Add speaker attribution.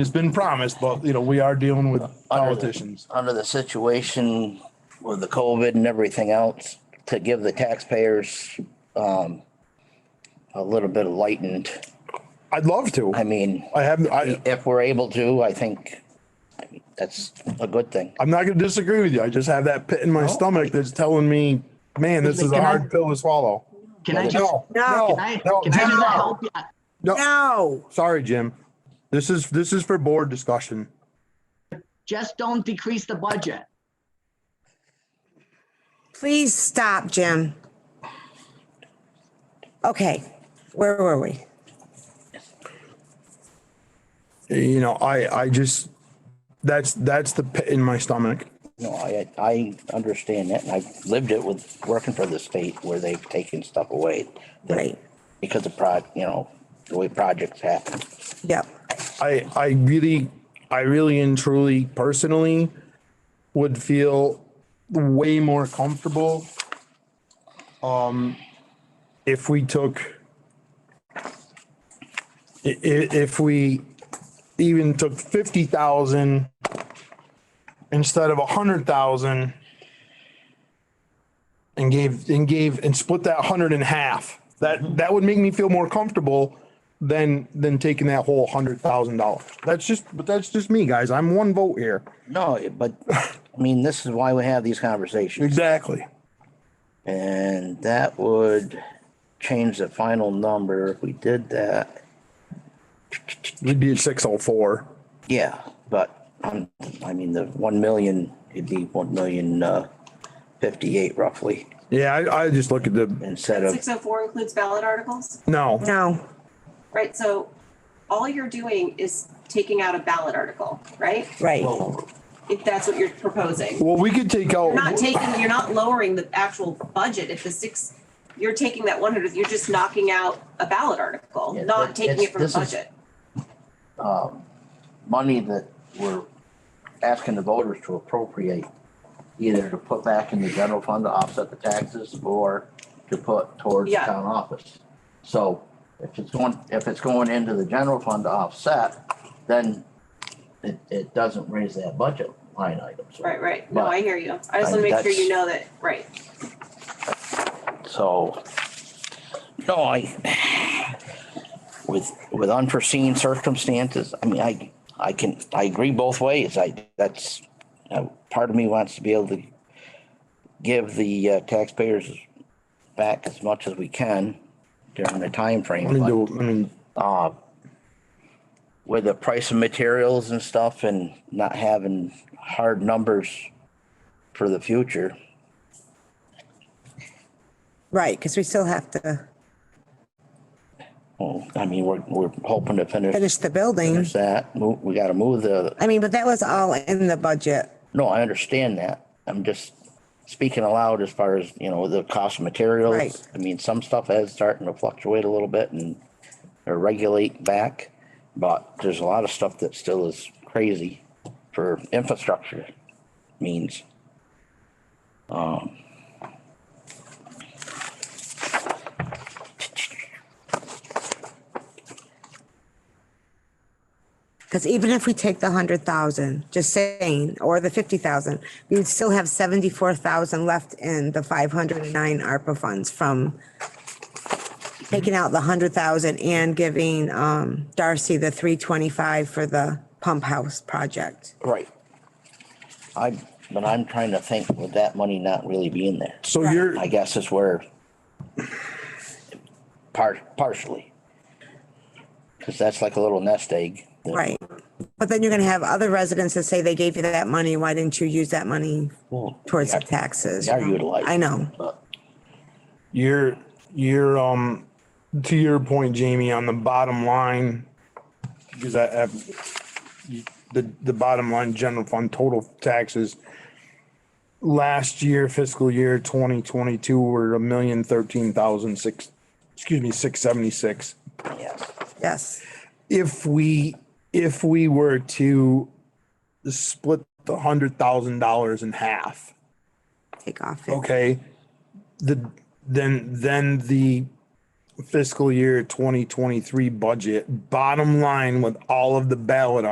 Speaker 1: It's been promised, but you know, we are dealing with politicians.
Speaker 2: under the situation with the COVID and everything else, to give the taxpayers, um, a little bit of lightened,
Speaker 1: I'd love to.
Speaker 2: I mean,
Speaker 1: I have, I,
Speaker 2: if we're able to, I think that's a good thing.
Speaker 1: I'm not gonna disagree with you. I just have that pit in my stomach that's telling me, man, this is a
Speaker 3: Can I-
Speaker 1: hard pill to swallow.
Speaker 3: Can I just,
Speaker 1: No,
Speaker 4: No.
Speaker 1: no,
Speaker 3: can I,
Speaker 1: no,
Speaker 3: can I
Speaker 1: Jim,
Speaker 3: just
Speaker 1: no.
Speaker 3: help you?
Speaker 4: No,
Speaker 1: Sorry, Jim. This is, this is for board discussion.
Speaker 3: Just don't decrease the budget.
Speaker 4: please stop, Jim. Okay, where were we?
Speaker 1: You know, I, I just, that's, that's the pit in my stomach.
Speaker 2: No, I, I understand that and I've lived it with working for the state where they've taken stuff away.
Speaker 4: Right,
Speaker 2: Because of prod, you know, the way projects happen.
Speaker 4: yep,
Speaker 1: I I really I really and truly personally would feel way more comfortable um if we took i- i- if we even took 50,000 instead of 100,000 and gave and gave and split that 100 in half. That that would make me feel more comfortable than than taking that whole hundred thousand dollars. That's just, but that's just me, guys. I'm one vote here.
Speaker 2: No, but I mean, this is why we have these conversations.
Speaker 1: Exactly.
Speaker 2: And that would change the final number if we did that.
Speaker 1: We'd be at six oh four.
Speaker 2: Yeah, but um, I mean, the one million, it'd be one million, uh, fifty-eight roughly
Speaker 1: Yeah, I, I just look at the
Speaker 2: instead of,
Speaker 5: Six oh four includes ballot articles,
Speaker 1: no.
Speaker 4: no,
Speaker 5: right? So all you're doing is taking out a ballot article, right?
Speaker 4: right,
Speaker 5: If that's what you're proposing.
Speaker 1: Well, we could take out.
Speaker 5: You're not taking, you're not lowering the actual budget. If the six, you're taking that one hundred, you're just knocking out a ballot article,
Speaker 2: Yeah,
Speaker 5: not
Speaker 2: but
Speaker 5: taking
Speaker 2: it's-
Speaker 5: it from the
Speaker 2: this is-
Speaker 5: budget.
Speaker 2: um, money that we're asking the voters to appropriate, either to put back in the general fund to offset the taxes or to put towards the
Speaker 5: Yeah.
Speaker 2: town office. So if it's going, if it's going into the general fund to offset, then it, it doesn't raise that budget line item. So-
Speaker 5: Right, right. No,
Speaker 2: But-
Speaker 5: I hear you. I just
Speaker 2: I-
Speaker 5: want to make sure
Speaker 2: that's-
Speaker 5: you know that, right.
Speaker 2: So, no, I, with, with unforeseen circumstances, I mean, I, I can, I agree both ways. I, that's, uh, part of me wants to be able to give the uh, taxpayers back as much as we can during the
Speaker 1: I mean,
Speaker 2: timeframe.
Speaker 1: do, I mean,
Speaker 2: But, uh, with the price of materials and stuff and not having hard numbers for the future.
Speaker 4: right, because we still have to
Speaker 2: Well, I mean, we're, we're hoping to finish.
Speaker 4: finish the building.
Speaker 2: There's that. Mo- We gotta move the,
Speaker 4: I mean, but that was all in the budget.
Speaker 2: no, I understand that. I'm just speaking aloud as far as, you know, the cost of materials.
Speaker 4: Right.
Speaker 2: I mean, some stuff has starting to fluctuate a little bit and or regulate back. But there's a lot of stuff that still is crazy for infrastructure means.
Speaker 4: Because even if we take the hundred thousand, just saying, or the fifty thousand, we would still have seventy-four thousand left in the five hundred and nine ARPA funds from taking out the hundred thousand and giving um Darcy the three twenty-five for the pump house project.
Speaker 2: Right. I, but I'm trying to think, would that money not really be in there?
Speaker 1: so you're,
Speaker 2: I guess is where par- partially. Cause that's like a little nest egg. that-
Speaker 4: Right. But then you're gonna have other residents that say they gave you that money, why didn't you use that money
Speaker 2: Well,
Speaker 4: towards the
Speaker 2: yeah,
Speaker 4: taxes?
Speaker 2: They are utilized.
Speaker 4: I know,
Speaker 2: But
Speaker 1: you're, you're, um, to your point, Jamie, on the bottom line, because I have the, the bottom line general fund total taxes. Last year fiscal year twenty twenty-two were a million thirteen thousand six, excuse me, six seventy-six.
Speaker 2: yes,
Speaker 4: yes,
Speaker 1: if we if we were to split the hundred thousand dollars in half,
Speaker 4: take off. it.
Speaker 1: okay, the then then the fiscal year twenty twenty three budget bottom line with all of the ballot